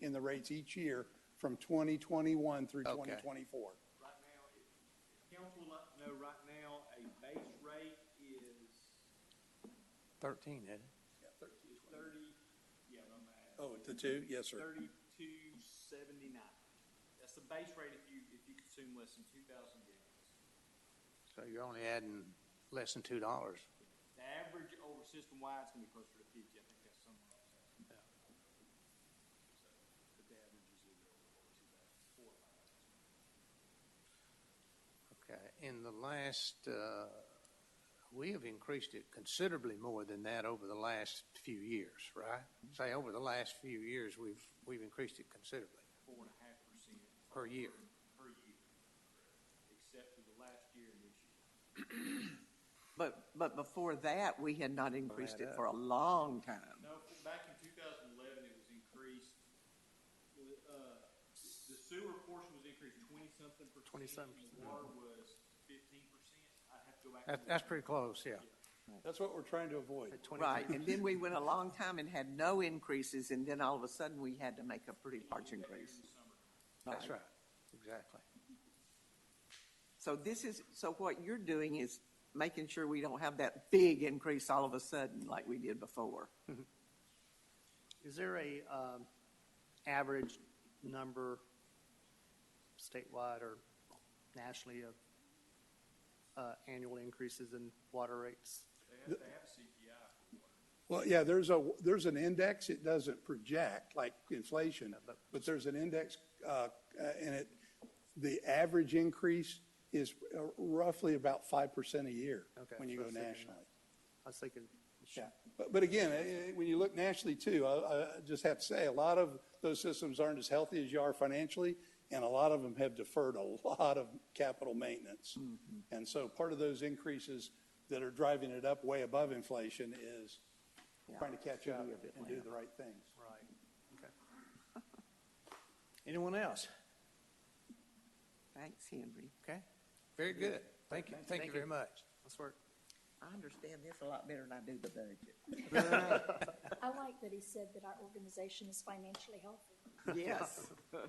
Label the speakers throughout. Speaker 1: in the rates each year from 2021 through
Speaker 2: Okay.
Speaker 1: 2024.
Speaker 3: Right now, if council would like to know right now, a base rate is
Speaker 4: Thirteen, isn't it?
Speaker 3: is thirty, yeah, I'm at
Speaker 1: Oh, the two? Yes, sir.
Speaker 3: thirty-two seventy-nine. That's the base rate if you, if you consume less than two thousand gallons.
Speaker 4: So you're only adding less than two dollars.
Speaker 3: The average over system-wide is gonna be closer to fifty, I think that's somewhere else. So, But the average is either over or two thousand, four or five.
Speaker 4: Okay, in the last, uh, we have increased it considerably more than that over the last few years, right? Say, over the last few years, we've, we've increased it considerably
Speaker 3: four and a half percent
Speaker 4: per year.
Speaker 3: per year, except for the last year and this year.
Speaker 2: But, but before that, we had not increased
Speaker 4: uh,
Speaker 2: it for a long time.
Speaker 3: No, back in two thousand eleven, it was increased, the, uh, the sewer portion was increased twenty-something percent.
Speaker 4: 20-something
Speaker 3: and Water was fifteen percent, I'd have to go back.
Speaker 4: That,
Speaker 3: and look.
Speaker 4: that's pretty close, yeah.
Speaker 1: That's what we're trying to avoid.
Speaker 4: At 23.
Speaker 2: Right, and then we went a long time and had no increases, and then all of a sudden, we had to make a pretty large increase.
Speaker 4: That's right, exactly.
Speaker 2: So this is, so what you're doing is making sure we don't have that big increase all of a sudden like we did before.
Speaker 5: Is there a um, average number statewide or nationally of uh, annual increases in water rates?
Speaker 3: They have, they have a CPI for water.
Speaker 1: Well, yeah, there's a, there's an index, it doesn't project like inflation, but there's an index, uh, and it, the average increase is uh, roughly about 5% a year
Speaker 5: Okay,
Speaker 1: when you
Speaker 5: so
Speaker 1: go
Speaker 5: it's thinking that.
Speaker 1: nationally.
Speaker 5: I was thinking,
Speaker 1: Yeah, but, but again, eh, eh, when you look nationally too, I, I just have to say, a lot of those systems aren't as healthy as you are financially, and a lot of them have deferred a lot of capital maintenance. And so part of those increases that are driving it up way above inflation is trying to catch up and do the right things.
Speaker 5: right, okay.
Speaker 4: Anyone else?
Speaker 2: Thanks, Henry.
Speaker 4: Okay, very good. Thank you, thank you very much.
Speaker 5: Let's work.
Speaker 2: I understand this a lot better than I do the budget.
Speaker 6: I like that he said that our organization is financially healthy.
Speaker 2: Yes.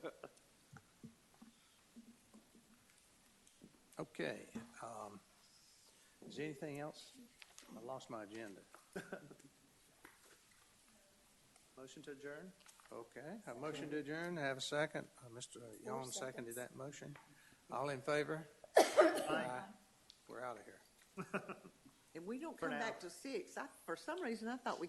Speaker 4: Okay, um, is there anything else? I lost my agenda.
Speaker 5: Motion to adjourn?
Speaker 4: Okay, a motion to adjourn, have a second. Uh, Mr. Yon seconded that motion. All in favor? Aye. We're out of here.
Speaker 2: And we don't come back to six. I, for some reason, I thought we